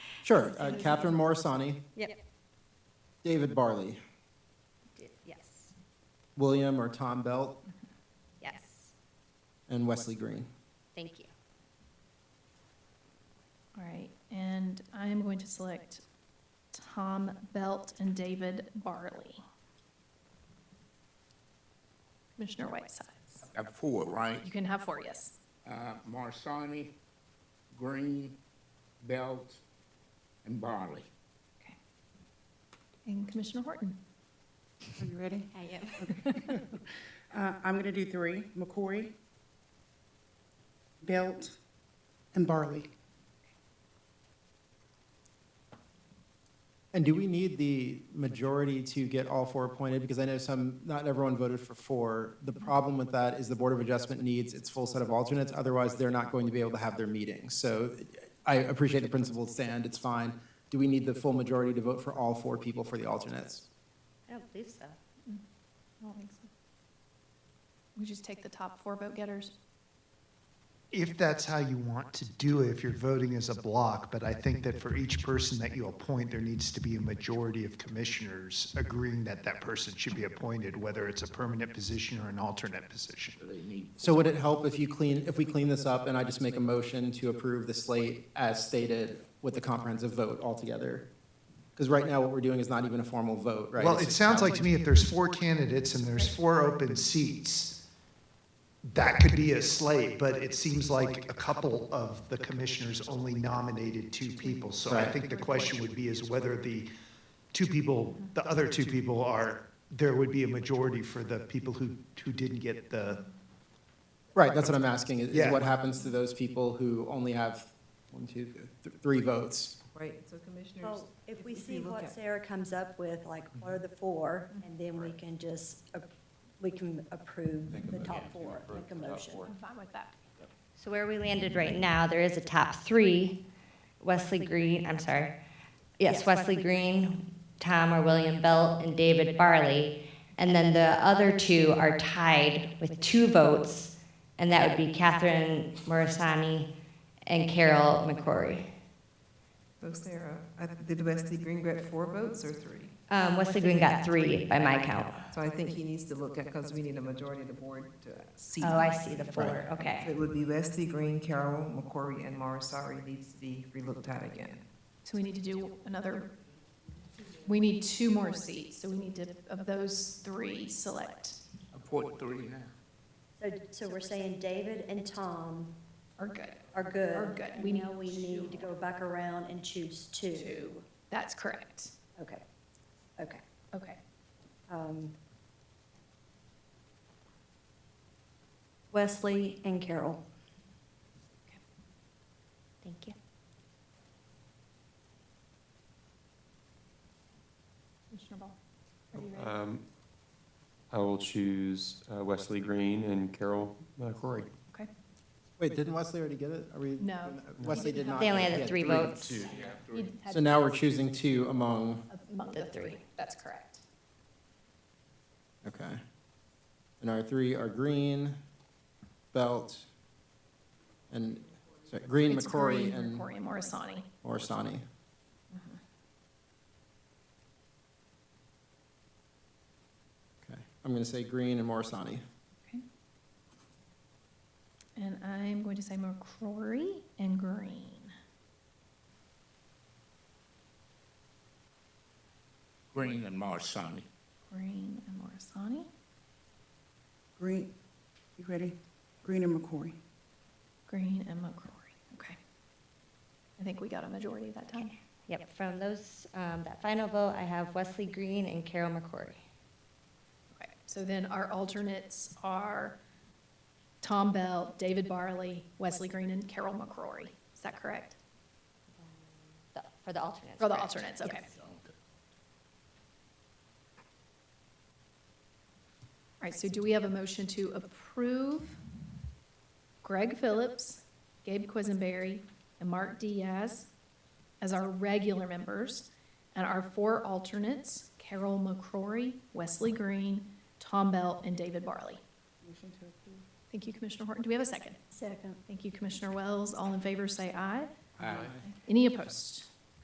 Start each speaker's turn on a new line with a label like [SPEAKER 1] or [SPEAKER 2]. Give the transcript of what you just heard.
[SPEAKER 1] Sure, uh, Catherine Morisani,
[SPEAKER 2] Yep,
[SPEAKER 1] David Barley,
[SPEAKER 2] yes,
[SPEAKER 1] William or Tom Belt,
[SPEAKER 2] yes,
[SPEAKER 1] and Wesley Green.
[SPEAKER 2] thank you.
[SPEAKER 3] All right, and I am going to select Tom Belt and David Barley. Commissioner Whitesides.
[SPEAKER 4] Got four, right?
[SPEAKER 3] You can have four, yes.
[SPEAKER 4] Uh, Marsani, Green, Belt, and Barley.
[SPEAKER 3] Okay. And Commissioner Horton.
[SPEAKER 5] Are you ready?
[SPEAKER 2] I am.
[SPEAKER 5] Uh, I'm going to do three, McCory, Belt, and Barley.
[SPEAKER 1] And do we need the majority to get all four appointed? Because I know some, not everyone voted for four. The problem with that is the Board of Adjustment needs its full set of alternates, otherwise they're not going to be able to have their meetings. So I appreciate the principled stand, it's fine. Do we need the full majority to vote for all four people for the alternates?
[SPEAKER 2] I don't believe so.
[SPEAKER 3] I don't think so. We just take the top four vote getters.
[SPEAKER 6] If that's how you want to do it, if you're voting as a block, but I think that for each person that you appoint, there needs to be a majority of commissioners agreeing that that person should be appointed, whether it's a permanent position or an alternate position.
[SPEAKER 4] So they need,
[SPEAKER 1] So would it help if you clean, if we clean this up and I just make a motion to approve the slate as stated with the comprehensive vote altogether? Because right now, what we're doing is not even a formal vote, right?
[SPEAKER 6] Well, it sounds like to me if there's four candidates and there's four open seats, that could be a slate, but it seems like a couple of the commissioners only nominated two people. So I
[SPEAKER 1] Right.
[SPEAKER 6] think the question would be is whether the two people, the other two people are, there would be a majority for the people who, who didn't get the,
[SPEAKER 1] Right, that's what I'm asking, is- is
[SPEAKER 6] Yeah.
[SPEAKER 1] what happens to those people who only have one, two, th- three votes?
[SPEAKER 7] Right, so commissioners,
[SPEAKER 8] Well, if we
[SPEAKER 7] if you
[SPEAKER 8] see
[SPEAKER 7] look
[SPEAKER 8] what
[SPEAKER 7] at-
[SPEAKER 8] Sarah comes up with, like, what are the four, and then we can just, a- we can approve the top four, make a motion.
[SPEAKER 3] I'm fine with that.
[SPEAKER 2] So where we landed right now, there is a top three, Wesley Green, I'm sorry. Yes, Wesley Green, Tom or William Belt, and David Barley. And then the other two are tied with two votes, and that would be Catherine Morisani and Carol McCrory.
[SPEAKER 7] so Sarah, I- did Wesley Green get four votes or three?
[SPEAKER 2] Um, Wesley Green got three by my count.
[SPEAKER 7] So I think he needs to look at, because we need a majority of the board to see.
[SPEAKER 2] Oh, I see the four,
[SPEAKER 7] Right. So
[SPEAKER 2] okay.
[SPEAKER 7] It would be Wesley Green, Carol, McCory, and Marisari needs to be relooked at again.
[SPEAKER 3] So we need to do another, we need two more seats, so we need to, of those three, select
[SPEAKER 4] appoint three now.
[SPEAKER 8] So, so we're saying David and Tom
[SPEAKER 3] are good.
[SPEAKER 8] are good.
[SPEAKER 3] Are good.
[SPEAKER 8] We know we need to go back around and choose two.
[SPEAKER 3] Two. That's correct.
[SPEAKER 8] Okay, okay.
[SPEAKER 3] Okay.
[SPEAKER 8] Um, Wesley and Carol.
[SPEAKER 2] Thank you.
[SPEAKER 3] Commissioner Ball? are
[SPEAKER 8] Oh,
[SPEAKER 3] you ready?
[SPEAKER 9] Um, I will choose uh, Wesley Green and Carol uh, Corey.
[SPEAKER 1] Wait, didn't Wesley already get it? Are we?
[SPEAKER 3] No.
[SPEAKER 1] Wesley did not.
[SPEAKER 2] They only had the
[SPEAKER 1] get
[SPEAKER 2] three votes.
[SPEAKER 1] two.
[SPEAKER 3] You had
[SPEAKER 1] So now we're choosing two among,
[SPEAKER 3] Among the
[SPEAKER 2] The
[SPEAKER 3] three, that's correct.
[SPEAKER 1] okay. And our three are Green, Belt, and, sorry, Green,
[SPEAKER 3] It's
[SPEAKER 1] McCrory,
[SPEAKER 3] Green, Mm-hmm.
[SPEAKER 1] and
[SPEAKER 3] McCrory and Morisani.
[SPEAKER 1] Orsani. Okay, I'm going to say Green and Morisani.
[SPEAKER 3] And I'm going to say McCrory and Green.
[SPEAKER 4] Green and Marsani.
[SPEAKER 3] Green and Morisani.
[SPEAKER 5] Green, you ready? Green and McCory.
[SPEAKER 3] Green and McCrory. Okay. I think we got a majority that time.
[SPEAKER 2] Yep, from those, um, that final vote, I have Wesley Green and Carol McCrory.
[SPEAKER 3] Okay. So then our alternates are Tom Bell, David Barley, Wesley Green, and Carol McCrory. Is that correct?
[SPEAKER 2] The- For the alternates.
[SPEAKER 3] For the
[SPEAKER 2] correct?
[SPEAKER 3] alternates, okay.
[SPEAKER 2] Yes.
[SPEAKER 3] All right, so do we have a motion to approve Greg Phillips, Gabe Quisenberry, and Mark Diaz as our regular members, and our four alternates, Carol McCrory, Wesley Green, Tom Belt, and David Barley? Thank you, Commissioner Horton. Do we have a second?
[SPEAKER 8] Second.
[SPEAKER 3] Thank you, Commissioner Wells. All in favor, say aye.
[SPEAKER 4] Aye.
[SPEAKER 3] Any opposed?